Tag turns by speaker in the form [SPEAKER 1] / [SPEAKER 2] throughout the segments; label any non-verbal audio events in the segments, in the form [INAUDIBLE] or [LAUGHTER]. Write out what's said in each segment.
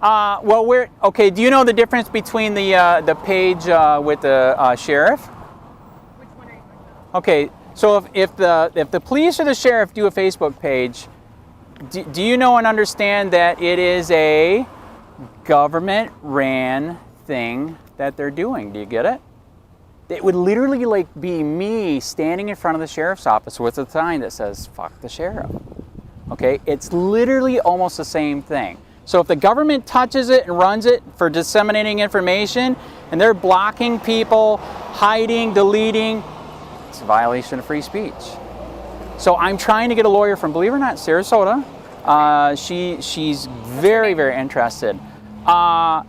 [SPEAKER 1] Uh, well, we're okay. Do you know the difference between the uh, the page uh, with the uh, sheriff?
[SPEAKER 2] Which one are you talking about?
[SPEAKER 1] Okay, so if, if the if the police or the sheriff do a Facebook page, do, do you know and understand that it is a government ran thing that they're doing? Do you get it? It would literally like be me standing in front of the sheriff's office with a sign that says "fuck the sheriff." Okay, it's literally almost the same thing. So if the government touches it and runs it for disseminating information, and they're blocking people, hiding, deleting, it's a violation of free speech. So I'm trying to get a lawyer from, believe it or not, Sarasota. Uh, she she's very very interested. Uh,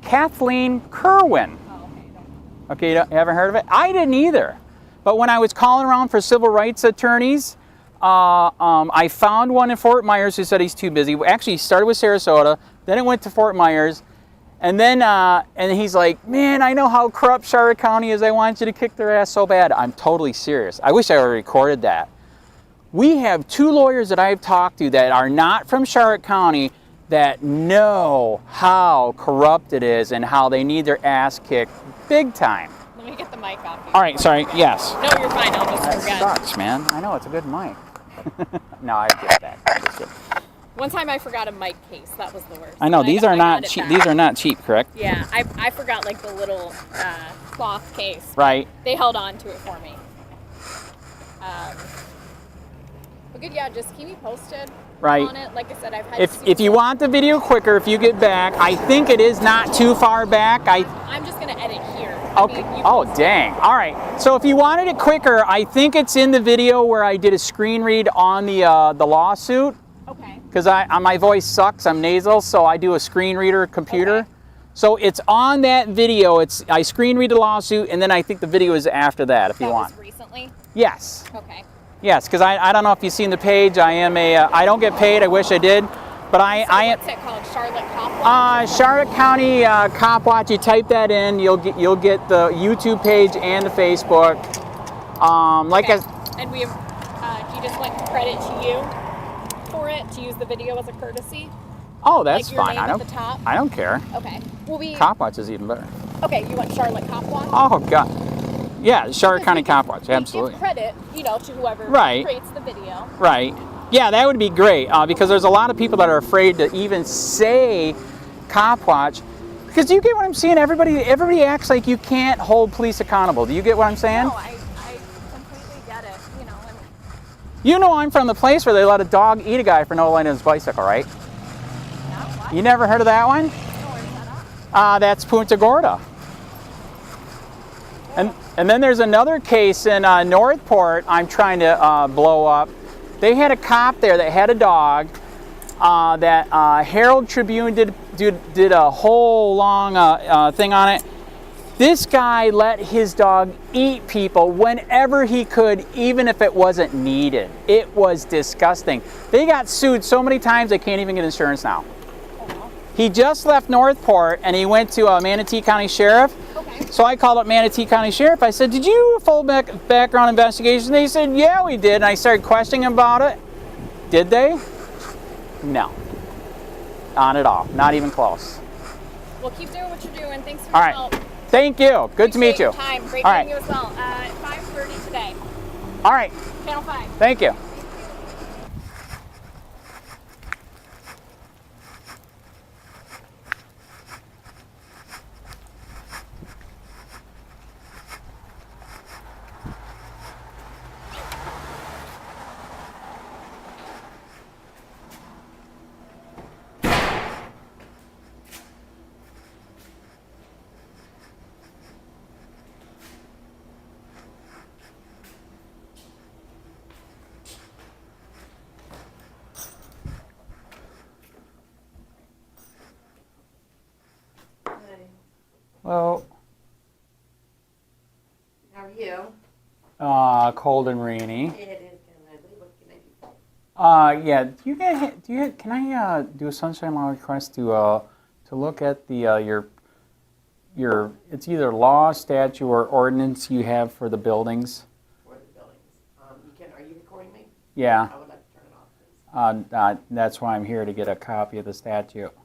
[SPEAKER 1] Kathleen Kerwin.
[SPEAKER 2] Oh, okay, you don't.
[SPEAKER 1] Okay, you, don't, you haven't heard of it? I didn't either. But when I was calling around for civil rights attorneys, uh, um, I found one in Fort Myers who said he's too busy. Well, Actually, he started with Sarasota, then it went to Fort Myers, and then uh, and he's like, "Man, I know how corrupt Charlotte County is. I want you to kick their ass so bad." I'm totally serious. I wish I already recorded that. We have two lawyers that I've talked to that are not from Charlotte County that know how corrupt it is and how they need their ass kicked big time.
[SPEAKER 2] Let me get the mic off. you.
[SPEAKER 1] All right, sorry. Yes.
[SPEAKER 2] No, you're fine. I'll just forget.
[SPEAKER 1] Sucks, man. I know it's a good mic. [LAUGHS] no, I get that. I get it.
[SPEAKER 2] One time I forgot a mic case. That was the worst.
[SPEAKER 1] I know
[SPEAKER 2] And
[SPEAKER 1] these
[SPEAKER 2] got-
[SPEAKER 1] are
[SPEAKER 2] I
[SPEAKER 1] not
[SPEAKER 2] got it
[SPEAKER 1] cheap.
[SPEAKER 2] back.
[SPEAKER 1] These are not cheap, correct?
[SPEAKER 2] Yeah, I, I forgot like the little uh, cloth case.
[SPEAKER 1] Right.
[SPEAKER 2] They held on to it for me. Um, but good, yeah. Just keep me posted
[SPEAKER 1] Right.
[SPEAKER 2] on it. Like I said, I've had.
[SPEAKER 1] If if you
[SPEAKER 2] super-
[SPEAKER 1] want the video quicker, if you get back, I think it is not too far back. I
[SPEAKER 2] I'm just gonna edit here. I
[SPEAKER 1] Okay.
[SPEAKER 2] mean, you
[SPEAKER 1] Oh,
[SPEAKER 2] post it.
[SPEAKER 1] dang. All right. So if you wanted it quicker, I think it's in the video where I did a screen read on the uh, the lawsuit
[SPEAKER 2] Okay.
[SPEAKER 1] because I uh, my voice sucks. I'm nasal, so I do a screen reader computer.
[SPEAKER 2] Okay.
[SPEAKER 1] So it's on that video. It's I screen read the lawsuit, and then I think the video is after that. If you
[SPEAKER 2] that
[SPEAKER 1] want.
[SPEAKER 2] was recently.
[SPEAKER 1] Yes.
[SPEAKER 2] Okay.
[SPEAKER 1] Yes, because I, I don't know if you've seen the page. I am a uh, I don't get paid. I wish I did, but I
[SPEAKER 2] So
[SPEAKER 1] I am
[SPEAKER 2] what's it called? Charlotte Copland.
[SPEAKER 1] uh, Charlotte County uh, Cop Watch. You type that in, you'll get you'll get the YouTube page and the Facebook. Um, like
[SPEAKER 2] okay.
[SPEAKER 1] I,
[SPEAKER 2] and we have. Uh, do you just want credit to you for it to use the video as a courtesy?
[SPEAKER 1] oh that's
[SPEAKER 2] like your
[SPEAKER 1] fine. I
[SPEAKER 2] Name At
[SPEAKER 1] don't
[SPEAKER 2] the top.
[SPEAKER 1] I don't care.
[SPEAKER 2] Okay. Well, we.
[SPEAKER 1] Cop Watch is even better.
[SPEAKER 2] Okay, you want Charlotte Cop Watch?
[SPEAKER 1] Oh god, yeah, Charlotte County Cop Watch.
[SPEAKER 2] We give
[SPEAKER 1] Absolutely.
[SPEAKER 2] credit, you know, to whoever
[SPEAKER 1] Right.
[SPEAKER 2] creates the video.
[SPEAKER 1] Right. Yeah, that would be great uh, because there's a lot of people that are afraid to even say cop watch because do you get what I'm saying? Everybody, everybody acts like you can't hold police accountable. Do you get what I'm saying?
[SPEAKER 2] No, Oh, I, I completely get it. You know, and
[SPEAKER 1] You know I'm from the place where they let a dog eat a guy for no light on his bicycle, right?
[SPEAKER 2] not why.
[SPEAKER 1] You never heard of that one?
[SPEAKER 2] that up.
[SPEAKER 1] Uh, that's Punta Gorda. And, and then there's another case in uh, Northport I'm trying to uh, blow up. They had a cop there that had a dog uh, that uh, Herald Tribune did, did, did a whole long uh, uh, thing on it. This guy let his dog eat people whenever he could, even if it wasn't needed. It was disgusting. They got sued so many times they can't even get insurance now.
[SPEAKER 2] Oh, well.
[SPEAKER 1] He just left Northport and he went to uh, Manatee County Sheriff.
[SPEAKER 2] Okay.
[SPEAKER 1] So I called up Manatee County Sheriff. I said, "Did you do a full back- background investigation?" They said, "Yeah, we did." And I started questioning him about it. Did they? No. Not at all. Not even close.
[SPEAKER 2] Well, keep doing what you're doing. Thanks for
[SPEAKER 1] All
[SPEAKER 2] your
[SPEAKER 1] right.
[SPEAKER 2] help.
[SPEAKER 1] Thank you. Good to meet
[SPEAKER 2] Appreciate
[SPEAKER 1] you.
[SPEAKER 2] your Time. Great
[SPEAKER 1] All
[SPEAKER 2] meeting you
[SPEAKER 1] right.
[SPEAKER 2] as well. Uh, at 5:30 today,
[SPEAKER 1] All right.
[SPEAKER 2] Channel 5.
[SPEAKER 1] Thank you. Well,
[SPEAKER 3] How are you?
[SPEAKER 1] uh, cold and rainy.
[SPEAKER 3] It is kind of ugly. What can I do?
[SPEAKER 1] Uh, yeah. Do you get? Do you? Can I uh, do a sunshine law request to uh, to look at the uh, your your? It's either law, statute, or ordinance you have for the buildings.
[SPEAKER 3] for the buildings? Um, you can, are you recording me?
[SPEAKER 1] Yeah,
[SPEAKER 3] I would like to turn it off, please.
[SPEAKER 1] uh, uh, that's why I'm here to get a copy of the statute.